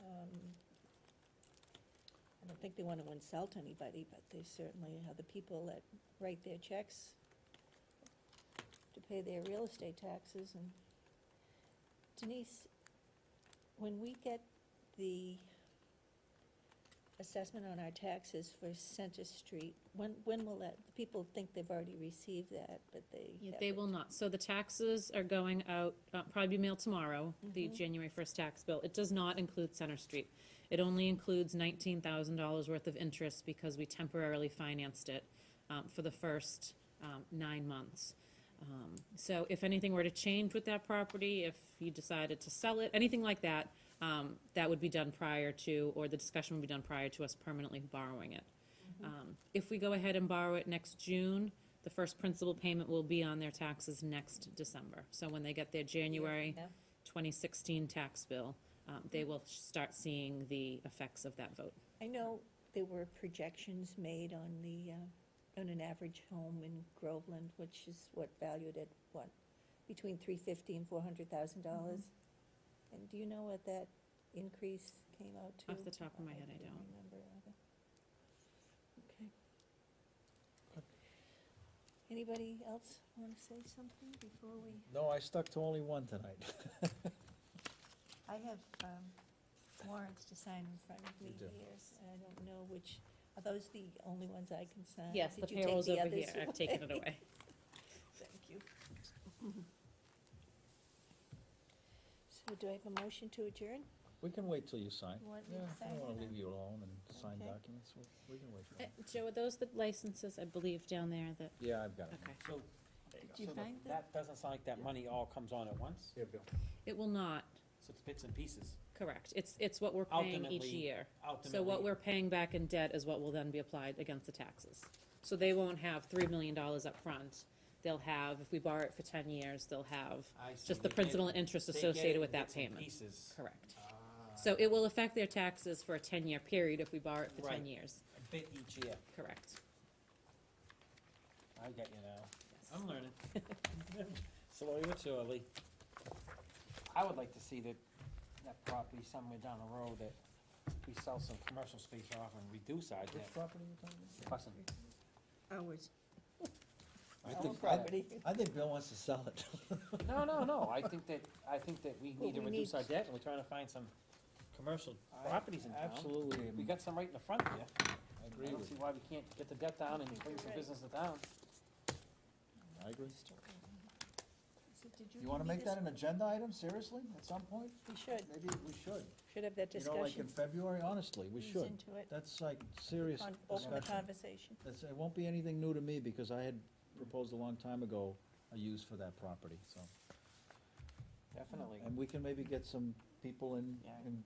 um, I don't think they want to insult anybody, but they certainly are the people that write their checks to pay their real estate taxes and Denise, when we get the assessment on our taxes for Center Street, when, when will that, the people think they've already received that, but they. Yeah, they haven't. will not. So the taxes are going out, uh, probably be mailed tomorrow, the Mhm. January first tax bill. It does not include Center Street. It only includes nineteen thousand dollars worth of interest because we temporarily financed it, um, for the first, um, nine months. Um, so if anything were to change with that property, if you decided to sell it, anything like that, um, that would be done prior to, or the discussion would be done prior to us permanently borrowing it. Mm-hmm. Um, If we go ahead and borrow it next June, the first principal payment will be on their taxes next December. So when they get their January Yeah. 2016 tax bill, um, they will start seeing the effects of that vote. I know there were projections made on the, uh, on an average home in Groveland, which is what valued at, what, between three fifty and four hundred thousand Mm-hmm. dollars? And do you know what that increase came out to? Off the top of my head, I can't don't. remember either. Okay. Anybody else want to say something before we? No, I stuck to only one tonight. I have um, warrants to sign in front of me do. here. I don't know which, are those the only ones I can sign? Yes, the Uh, Did you take payroll's over others here. I've taken it away. Thank you. So do I have a motion to adjourn? We can wait till you sign. You want me Yeah, to I sign don't it wanna or- leave you alone and sign Okay. documents, we, we can wait for Uh, it. Joe, are those the licenses, I believe, down there that, Yeah, I've got it. okay. So, Do you so the- find that? that doesn't sound like that money all comes on at once, Here, Bill. It will not, so it's bits and pieces. correct. It's, it's what we're paying each Ultimately, year. So what Ultimately, we're paying back in debt is what will then be applied against the taxes. So they won't have three million dollars up front. They'll have, if we borrow it for ten years, they'll have I see, just the they get- principal and interest they get associated it with in that bits and payment. Pieces. Correct. Ah, So it will affect their taxes for a ten-year period if we borrow it for ten Right. years. Ah, A bit each year, Correct. I get you now, Yes. I'm learning. Slowly but surely. I would like to see that, that property somewhere down the road that we sell some commercial space off and reduce our Which debt. property are you talking Listen, Ours. about? I Our think- I- property. I think Bill wants to sell it. No, no, no, I think that, I think that we Well, need to we reduce need- our debt, and we're trying to find some commercial I properties in town. Absolutely, We am- got some right in the front here. I I agree don't with see you. why we can't get the debt down and think bring you're some right. business to town. I agree. So did You wanna give me make this? that an agenda item, seriously, at some point? We should, Maybe we should. should have that You know, like discussion. in February, honestly, we ease should. Into it, That's like serious on, open the discussion. conversation. That's, it won't be anything new to me, because I had proposed a long time ago a use for that property, so. Definitely. And we can maybe get some people in, Yeah. and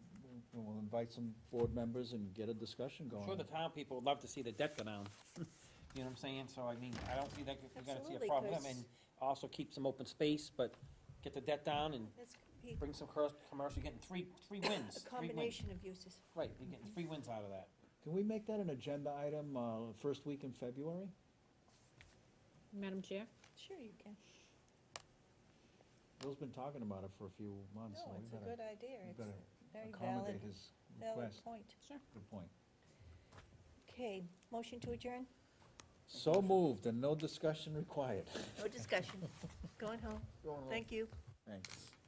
we'll invite some board members and get a discussion I'm sure going. the town people would love to see the debt go down. You know what I'm saying? So I mean, I don't see that, we're gonna see Absolutely, a problem, with 'cause- them, and also keep some open space, but get the debt down and That's could be bring some cur- commercial, you're getting three, three wins. a three wins. combination of uses. Right, you're getting three wins out of that. Can we make that an agenda item, uh, first week in February? Madam Chair? Sure you can. Bill's been talking about it for a few months, so No, it's we a good better idea. It's better a very valid, accommodate his valid request. point. Good point. Okay, motion to adjourn? So moved, and no discussion required. No discussion. Going home. Thank you. Thanks. Oh,